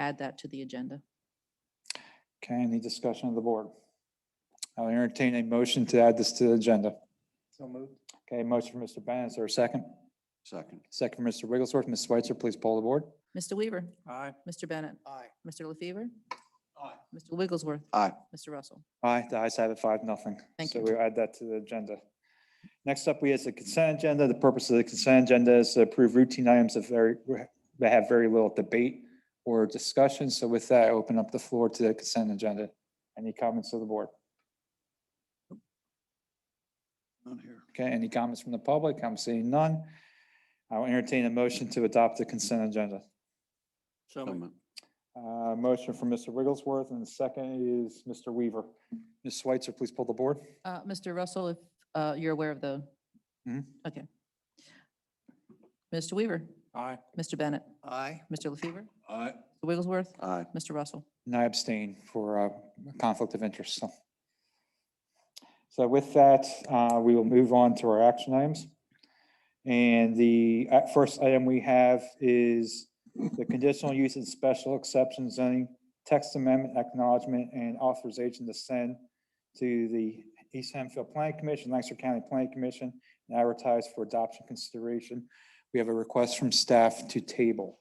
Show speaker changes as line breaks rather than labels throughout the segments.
add that to the agenda.
Okay, any discussion of the board? I'll entertain a motion to add this to the agenda.
So moved.
Okay, motion for Mr. Bennett, is there a second?
Second.
Second for Mr. Wigglesworth. Ms. Switzer, please poll the board.
Mr. Weaver,
Aye.
Mr. Bennett,
Aye.
Mr. LaFever,
Aye.
Mr. Wigglesworth.
Aye.
Mr. Russell.
Aye, the ayes have it, five, nothing.
Thank
So
you.
we add that to the agenda. Next up, we have the consent agenda. The purpose of the consent agenda is to approve routine items of very, that have very little debate or discussion. So with that, I open up the floor to the consent agenda. Any comments of the board?
None here.
Okay, any comments from the public? I'm seeing none. I'll entertain a motion to adopt the consent agenda.
So
So
moved.
moved.
Uh, Motion from Mr. Wigglesworth and the second is Mr. Weaver. Ms. Switzer, please pull the board.
Uh, Mr. Russell, if uh, you're aware of the,
Mhm.
okay. Mr. Weaver,
Aye.
Mr. Bennett,
Aye.
Mr. LaFever,
Aye.
Mr. Wigglesworth,
Aye.
Mr. Russell.
And I abstain for uh, conflict of interest, so. So with that, uh, we will move on to our action items. And the uh, first item we have is the conditional use and special exception zoning, text amendment acknowledgement and authorization to send to the East Hemphill Planning Commission, Lancaster County Planning Commission, and advertise for adoption consideration. We have a request from staff to table.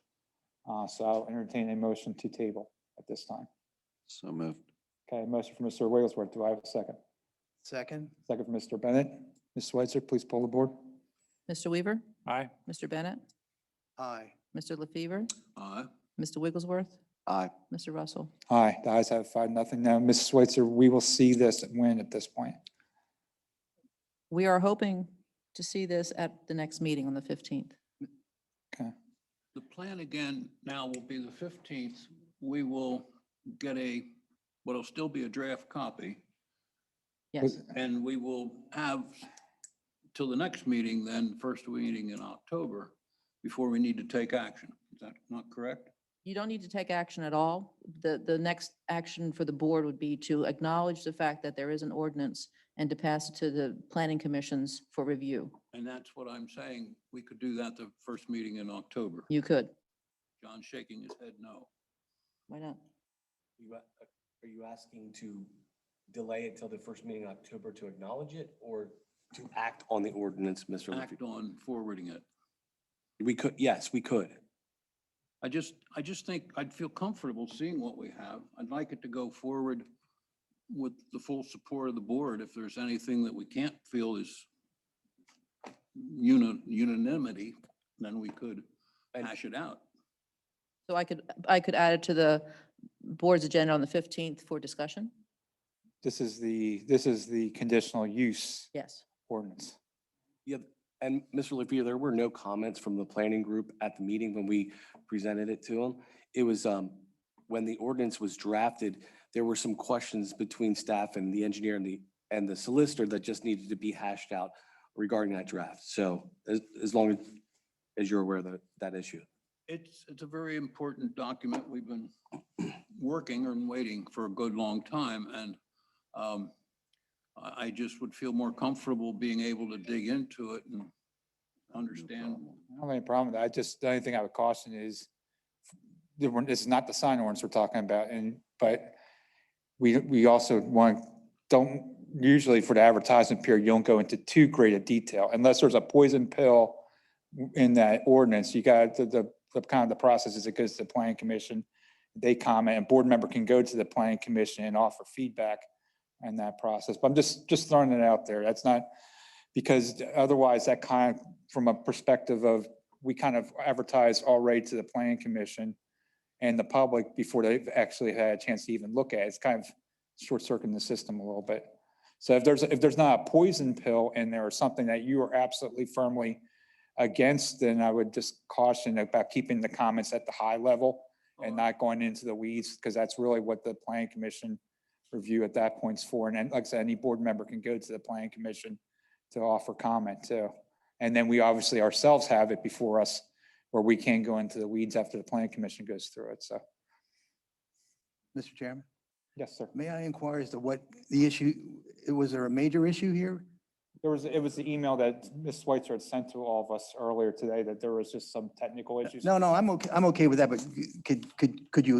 Uh, So I'll entertain a motion to table at this time.
So moved.
Okay, motion from Mr. Wigglesworth. Do I have a second?
Second.
Second from Mr. Bennett. Ms. Switzer, please poll the board.
Mr. Weaver,
Aye.
Mr. Bennett,
Aye.
Mr. LaFever,
Aye.
Mr. Wigglesworth,
Aye.
Mr. Russell.
Aye, the ayes have five, nothing. Now, Ms. Switzer, we will see this win at this point.
We are hoping to see this at the next meeting on the 15th.
Okay,
The plan again now will be the fifteenth. We will get a, what'll still be a draft copy,
Yes,
and we will have till the next meeting, then first meeting in October, before we need to take action. Is that not correct?
you don't need to take action at all. The, the next action for the board would be to acknowledge the fact that there is an ordinance and to pass it to the planning commissions for review.
And that's what I'm saying. We could do that the first meeting in October.
You could.
John's shaking his head no.
Why not?
You a- Are you asking to delay it till the first meeting in October to acknowledge it or to act on the ordinance, Mr. Liffey?
Act on forwarding it.
We could, yes, we could.
I just, I just think I'd feel comfortable seeing what we have. I'd like it to go forward with the full support of the board. If there's anything that we can't feel is uni- unanimity, then we could
And-
hash it out.
So I could, I could add it to the board's agenda on the 15th for discussion?
this is the, this is the conditional use
Yes.
ordinance.
Yeah, and Mr. Liffey, there were no comments from the planning group at the meeting when we presented it to them. It was, um, when the ordinance was drafted, there were some questions between staff and the engineer and the, and the solicitor that just needed to be hashed out regarding that draft. So as, as long as, as you're aware of that, that issue.
It's, it's a very important document. We've been working and waiting for a good long time and um, I, I just would feel more comfortable being able to dig into it and understand.
I don't have any problem with that. I just, the only thing I would caution is the one- this is not the sign ordinance we're talking about and, but we, we also want, don't, usually for the advertising period, you don't go into too great a detail unless there's a poison pill in that ordinance. You got, the, the, the kind of the process is it goes to the planning commission. They comment and board member can go to the planning commission and offer feedback in that process. But I'm just, just throwing it out there. That's not, because otherwise that kind of from a perspective of, we kind of advertise already to the planning commission and the public before they've actually had a chance to even look at it. It's kind of short circuiting the system a little bit. So if there's, if there's not a poison pill in there or something that you are absolutely firmly against, then I would just caution about keeping the comments at the high level and not going into the weeds, because that's really what the planning commission review at that point's for. And then, like I said, any board member can go to the planning commission to offer comment too. And then we obviously ourselves have it before us where we can go into the weeds after the planning commission goes through it. So,
Mr. Chairman,
yes, sir.
may I inquire as to what the issue, was there a major issue here?
There was, it was the email that Ms. Switzer had sent to all of us earlier today that there was just some technical issues.
No, no, I'm okay, I'm okay with that, but could, could, could you